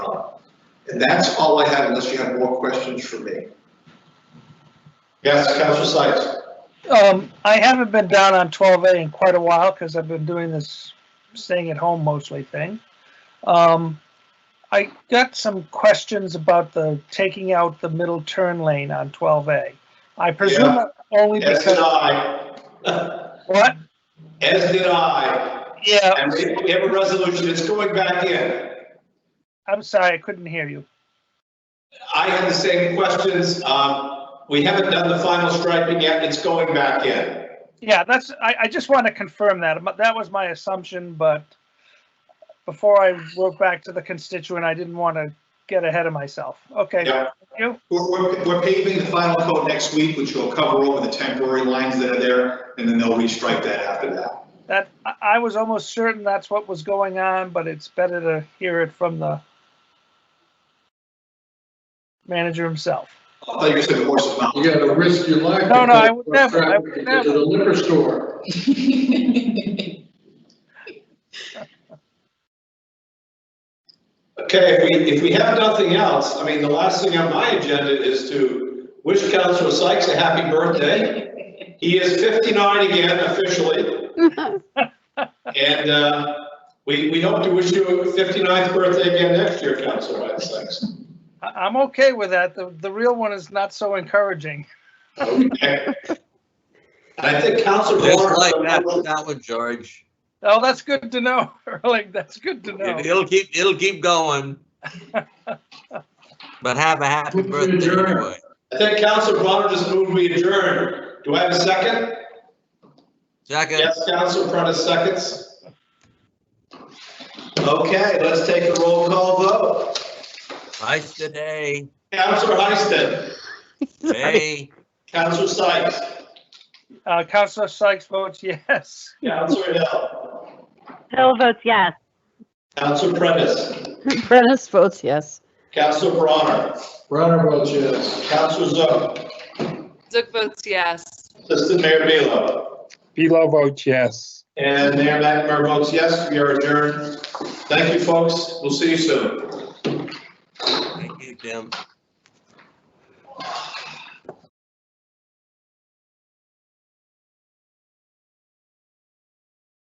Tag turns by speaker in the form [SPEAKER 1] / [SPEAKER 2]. [SPEAKER 1] That's all I have unless you have more questions for me. Yes, Council Sykes?
[SPEAKER 2] Um, I haven't been down on twelve A in quite a while because I've been doing this staying at home mostly thing. Um, I got some questions about the taking out the middle turn lane on twelve A. I presume
[SPEAKER 1] Yeah.
[SPEAKER 2] only
[SPEAKER 1] As did
[SPEAKER 2] because,
[SPEAKER 1] I.
[SPEAKER 2] what?
[SPEAKER 1] As did I.
[SPEAKER 2] Yeah,
[SPEAKER 1] And we have a resolution, it's going back in.
[SPEAKER 2] I'm sorry, I couldn't hear you.
[SPEAKER 1] I had the same questions. Um, we haven't done the final striping yet, it's going back in.
[SPEAKER 2] Yeah, that's, I, I just want to confirm that. but That was my assumption, but before I wrote back to the constituent, I didn't want to get ahead of myself. Okay.
[SPEAKER 1] Yeah.
[SPEAKER 2] Thank you.
[SPEAKER 3] We're, we're, we're paving the final coat next week, which will cover over the temporary lines that are there, and then they'll restripe that after that.
[SPEAKER 2] That, I, I was almost certain that's what was going on, but it's better to hear it from the manager himself.
[SPEAKER 3] I thought you said the horse's mouth.
[SPEAKER 4] You gotta risk your life.
[SPEAKER 2] No, no, I would
[SPEAKER 4] to
[SPEAKER 2] never, I would
[SPEAKER 4] traffic
[SPEAKER 2] never.
[SPEAKER 4] To the liquor store.
[SPEAKER 1] Okay, if we, if we have nothing else, I mean, the last thing on my agenda is to wish Councilor Sykes a happy birthday. He is 59 again officially. And uh, we, we hope to wish you a 59th birthday again next year, Councilor Sykes.
[SPEAKER 2] I, I'm okay with that. The, the real one is not so encouraging.
[SPEAKER 1] Okay. And I think Councilor
[SPEAKER 5] Just
[SPEAKER 1] Barnes.
[SPEAKER 5] like that, that one, George.
[SPEAKER 2] Oh, that's good to know, Like That's good to
[SPEAKER 5] It-
[SPEAKER 2] know.
[SPEAKER 5] It'll keep, it'll keep going. But have a happy
[SPEAKER 4] Move to
[SPEAKER 5] birthday
[SPEAKER 4] adjourn.
[SPEAKER 5] anyway.
[SPEAKER 1] I think Councilor Bronner just moved we adjourn. Do I have a second?
[SPEAKER 5] Second,
[SPEAKER 1] Yes, Councilor Prentice seconds. Okay, let's take a roll call vote.
[SPEAKER 5] nice today.
[SPEAKER 1] Councilor Heiston,
[SPEAKER 5] Hey,
[SPEAKER 1] Councilor Sykes,
[SPEAKER 2] Uh, Counselor Sykes votes yes.
[SPEAKER 1] Councilor Hill,
[SPEAKER 6] Hill votes yes.
[SPEAKER 1] Councilor Prentice,
[SPEAKER 6] Prentice votes yes.
[SPEAKER 1] Councilor Bronner,
[SPEAKER 4] Browner votes yes.
[SPEAKER 1] Councilor Zoe,
[SPEAKER 7] Zook votes yes.
[SPEAKER 1] Assistant Mayor Belo.
[SPEAKER 8] Below vote yes.
[SPEAKER 1] And Mayor McNamara votes yes, we are adjourned. Thank you, folks. We'll see you soon.
[SPEAKER 5] thank you, Tim.